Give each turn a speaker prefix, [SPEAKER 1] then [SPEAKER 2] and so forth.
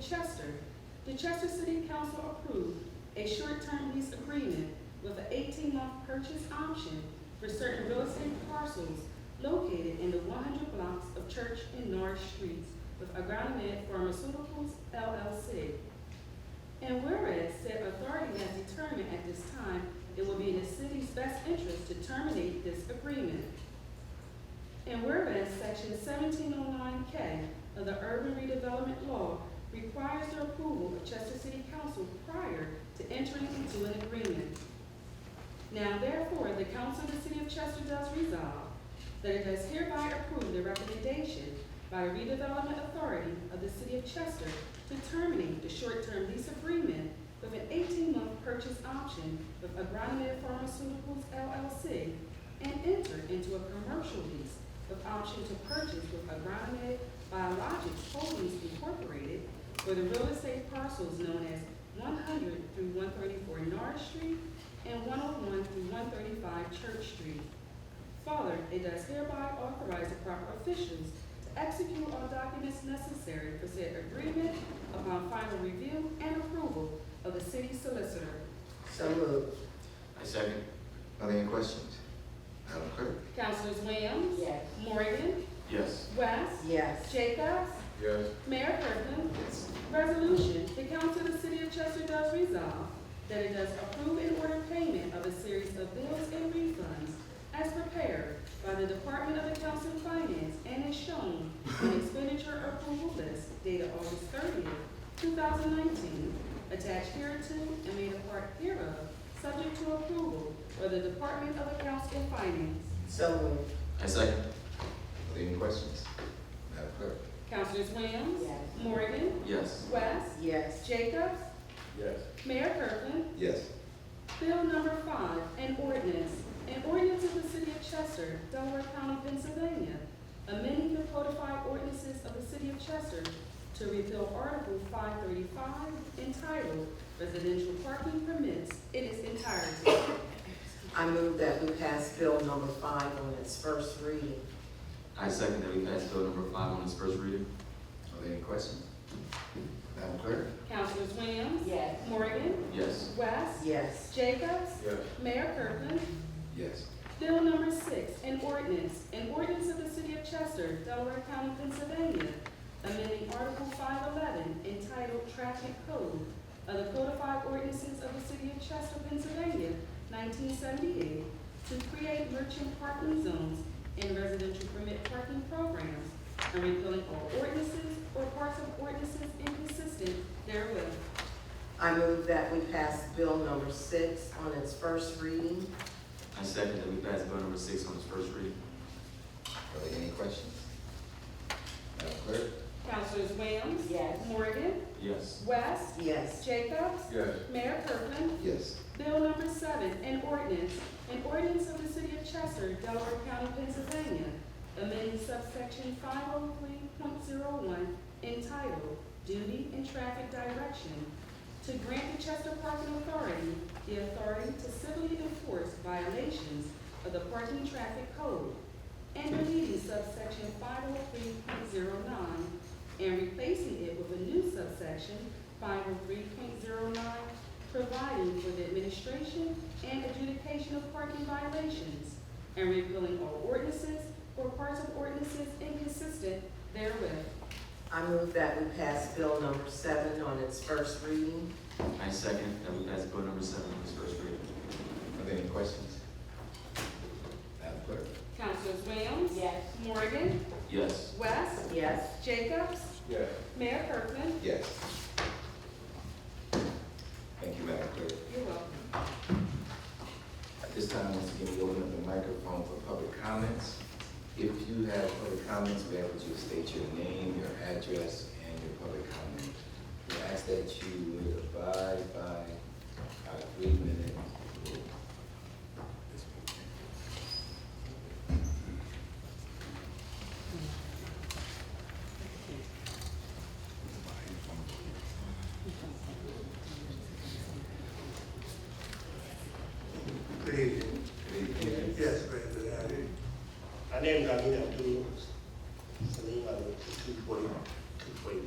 [SPEAKER 1] Chester, the Chester City Council approved a short-term lease agreement with an eighteen-month purchase option for certain real estate parcels located in the one hundred blocks of Church and Norris Streets with Agronomed Pharmaceuticals LLC. And whereas said authority has determined at this time it will be in the city's best interest to terminate this agreement. And whereas section seventeen oh nine K of the urban redevelopment law requires the approval of Chester City Council prior to entering into an agreement. Now therefore, the council of the city of Chester does resolve that it does hereby approve the recommendation by the redevelopment authority of the city of Chester to terminate the short-term lease agreement with an eighteen-month purchase option with Agronomed Pharmaceuticals LLC and enter into a commercial lease with option to purchase with Agronomed Biologics Holdings Incorporated for the real estate parcels known as one hundred through one thirty-four Norris Street and one oh one through one thirty-five Church Street. Further, it does hereby authorize the proper officials to execute all documents necessary for said agreement upon final review and approval of the city solicitor.
[SPEAKER 2] So moved.
[SPEAKER 3] I second.
[SPEAKER 4] Are there any questions? Madam Clerk?
[SPEAKER 1] Councilors Williams?
[SPEAKER 2] Yes.
[SPEAKER 1] Morgan?
[SPEAKER 3] Yes.
[SPEAKER 1] West?
[SPEAKER 2] Yes.
[SPEAKER 1] Jacobs?
[SPEAKER 3] Yes.
[SPEAKER 1] Mayor Kirkland?
[SPEAKER 4] Yes.
[SPEAKER 1] Resolution, the council of the city of Chester does resolve that it does approve and order payment of a series of bills and refunds as prepared by the Department of Accounts and Finance and is shown on expenditure approval list dated August thirtieth, two thousand nineteen, attached hereto and made a part hereof, subject to approval by the Department of Accounts and Finance.
[SPEAKER 2] So moved.
[SPEAKER 3] I second.
[SPEAKER 4] Are there any questions? Madam Clerk?
[SPEAKER 1] Councilors Williams?
[SPEAKER 2] Yes.
[SPEAKER 1] Morgan?
[SPEAKER 3] Yes.
[SPEAKER 1] West?
[SPEAKER 2] Yes.
[SPEAKER 1] Jacobs?
[SPEAKER 3] Yes.
[SPEAKER 1] Mayor Kirkland?
[SPEAKER 4] Yes.
[SPEAKER 1] Bill number five, an ordinance, an ordinance of the city of Chester, Delaware County, Pennsylvania, amending the codified ordinances of the city of Chester to repeal Article five thirty-five entitled Residential Parking Permits in its entirety.
[SPEAKER 2] I move that we pass bill number five on its first reading.
[SPEAKER 3] I second that we pass bill number five on its first reading.
[SPEAKER 4] Are there any questions? Madam Clerk?
[SPEAKER 1] Councilors Williams?
[SPEAKER 2] Yes.
[SPEAKER 1] Morgan?
[SPEAKER 3] Yes.
[SPEAKER 1] West?
[SPEAKER 2] Yes.
[SPEAKER 1] Jacobs?
[SPEAKER 4] Yes.
[SPEAKER 1] Mayor Kirkland?
[SPEAKER 4] Yes.
[SPEAKER 1] Bill number six, an ordinance, an ordinance of the city of Chester, Delaware County, Pennsylvania, amending Article five eleven entitled Traffic Code of the Codified Ordinances of the City of Chester, Pennsylvania, nineteen seventy-eight, to create merchant parking zones and residential permit parking programs, and repealing all ordinances or parts of ordinances inconsistent therewith.
[SPEAKER 2] I move that we pass bill number six on its first reading.
[SPEAKER 3] I second that we pass bill number six on its first reading.
[SPEAKER 4] Are there any questions? Madam Clerk?
[SPEAKER 1] Councilors Williams?
[SPEAKER 2] Yes.
[SPEAKER 1] Morgan?
[SPEAKER 3] Yes.
[SPEAKER 1] West?
[SPEAKER 2] Yes.
[SPEAKER 1] Jacobs?
[SPEAKER 4] Yes.
[SPEAKER 1] Mayor Kirkland?
[SPEAKER 4] Yes.
[SPEAKER 1] Bill number seven, an ordinance, an ordinance of the city of Chester, Delaware County, Pennsylvania, amending subsection five oh three point zero one entitled Duty and Traffic Direction to grant the Chester Parking Authority the authority to civilly enforce violations of the parking traffic code and deleting subsection five oh three point zero nine and replacing it with a new subsection five oh three point zero nine providing for the administration and adjudication of parking violations, and repealing all ordinances or parts of ordinances inconsistent therewith.
[SPEAKER 2] I move that we pass bill number seven on its first reading.
[SPEAKER 3] I second that we pass bill number seven on its first reading.
[SPEAKER 4] Are there any questions? Madam Clerk?
[SPEAKER 1] Councilors Williams?
[SPEAKER 2] Yes.
[SPEAKER 1] Morgan?
[SPEAKER 3] Yes.
[SPEAKER 1] West?
[SPEAKER 2] Yes.
[SPEAKER 1] Jacobs?
[SPEAKER 4] Yes.
[SPEAKER 1] Mayor Kirkland?
[SPEAKER 4] Yes. Thank you, Madam Clerk.
[SPEAKER 1] You're welcome.
[SPEAKER 4] At this time, once again, we open up the microphone for public comments. If you have public comments, we ask that you state your name, your address, and your public comment. We ask that you would abide by